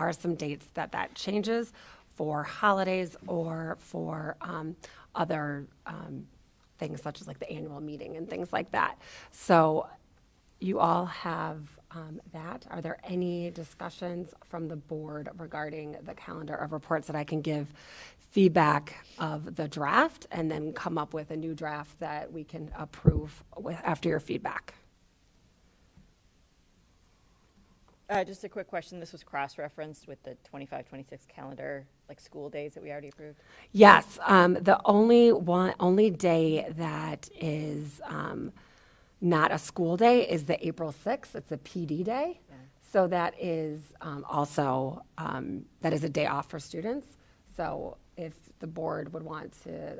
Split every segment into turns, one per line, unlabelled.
are some dates that that changes for holidays or for um, other um, things such as like the annual meeting and things like that. So you all have um, that. Are there any discussions from the board regarding the calendar of reports that I can give feedback of the draft and then come up with a new draft that we can approve with, after your feedback?
Uh, just a quick question. This was cross-referenced with the 25, 26 calendar, like school days that we already approved.
Yes, um, the only one, only day that is um, not a school day is the April 6th. It's a PD day. So that is um, also, um, that is a day off for students. So if the board would want to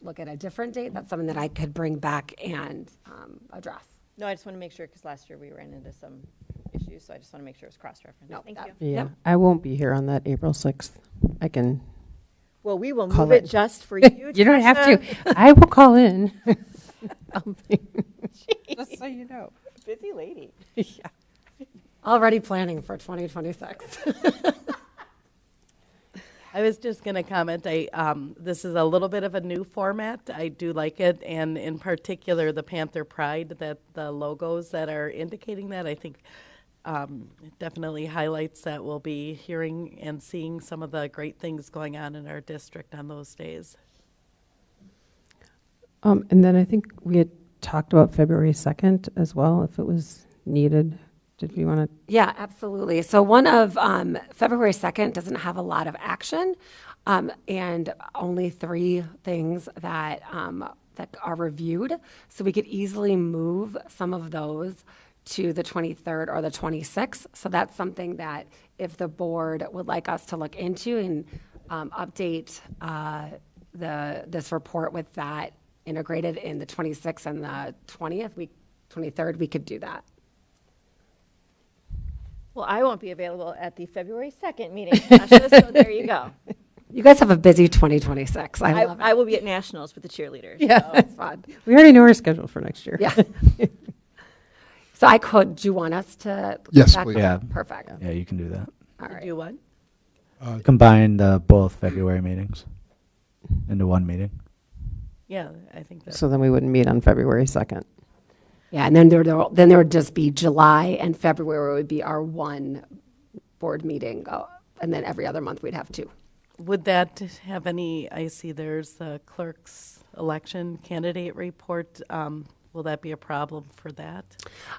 look at a different date, that's something that I could bring back and um, address.
No, I just want to make sure, because last year we ran into some issues, so I just want to make sure it was cross-referenced.
No,
Thank
that-
you.
Yeah,
Yep.
I won't be here on that April 6th. I can,
Well, we will
Call
move it
it.
just for you.
you don't have to. I will call in. Um, I'll be- Just so you know.
Busy lady.
Already planning for 2026.
I was just going to comment. I um, this is a little bit of a new format. I do like it, and in particular, the Panther Pride that the logos that are indicating that I think um, it definitely highlights that we'll be hearing and seeing some of the great things going on in our district on those days.
Um, And then I think we had talked about February 2nd as well, if it was needed. Did we want to
Yeah, absolutely. So one of um, February 2nd doesn't have a lot of action, um, and only three things that um, that are reviewed. So we could easily move some of those to the 23rd or the 26th. So that's something that if the board would like us to look into and um, update uh, the this report with that integrated in the 26th and the 20th, we 23rd, we could do that.
Well, I won't be available at the February 2nd meeting, Tasha, so there you go.
You guys have a busy 2026. I
I,
love it.
I will be at nationals with the cheerleaders.
Yeah,
It's fun.
we already know our schedule for next year.
Yeah. So I could, do you want us to?
Yes,
that-
please.
Yeah.
Perfect.
Yeah, you can do that.
All
To
right.
Do what?
Uh,
Combine the both February meetings into one meeting.
Yeah, I think that's
So then we wouldn't meet on February 2nd.
Yeah, and then there, there'll- then there would just be July and February would be our one board meeting. uh, And then every other month we'd have two.
Would that have any, I see there's the clerk's election candidate report. Um, will that be a problem for that?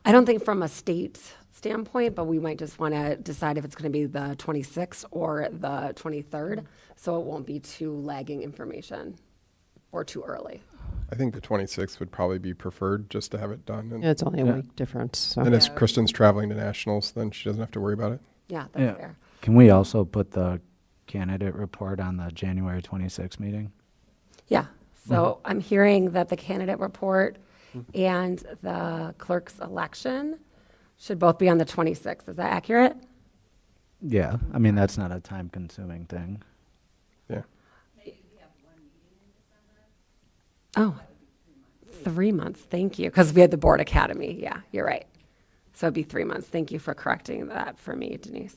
I don't think from a state standpoint, but we might just want to decide if it's going to be the 26th or the 23rd. So it won't be too lagging information or too early.
I think the 26th would probably be preferred just to have it done. And,
Yeah, It's only a week difference, so.
and if Kristen's traveling to nationals, then she doesn't have to worry about it.
Yeah, that's fair.
Can we also put the candidate report on the January 26th meeting?
Yeah, so I'm hearing that the candidate report and the clerk's election should both be on the 26th. Is that accurate?
Yeah, I mean, that's not a time-consuming thing.
Yeah.
Oh, three months, thank you, because we had the Board Academy, yeah, you're right. So it'd be three months, thank you for correcting that for me, Denise.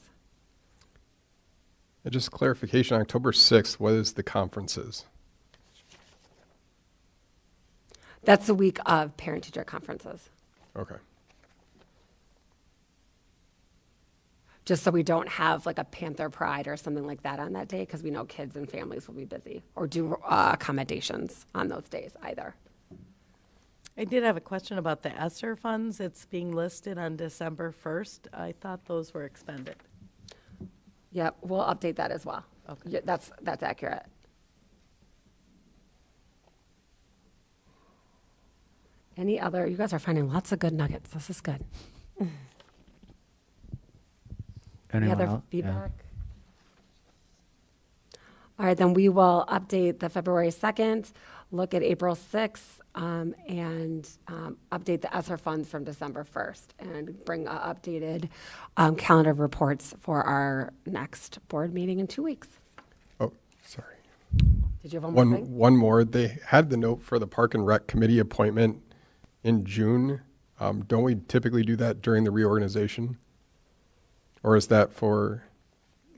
And just clarification, October 6th, what is the conferences?
That's the week of parent-teacher conferences,
Okay.
just so we don't have like a Panther Pride or something like that on that day, because we know kids and families will be busy, or do uh, accommodations on those days either.
I did have a question about the ESSER funds. It's being listed on December 1st. I thought those were expended.
Yep, we'll update that as well.
Okay.
Yeah, That's, that's accurate. Any other, you guys are finding lots of good nuggets. This is good. Any
Anyone
other
else? Yeah.
feedback? All right, then we will update the February 2nd, look at April 6th, um, and um, update the ESSER funds from December 1st, and bring uh, updated um, calendar of reports for our next board meeting in two weeks.
Oh, sorry.
Did you have one more thing?
One, one more. They had the note for the Park and Rec Committee appointment in June. Um, don't we typically do that during the reorganization? Or is that for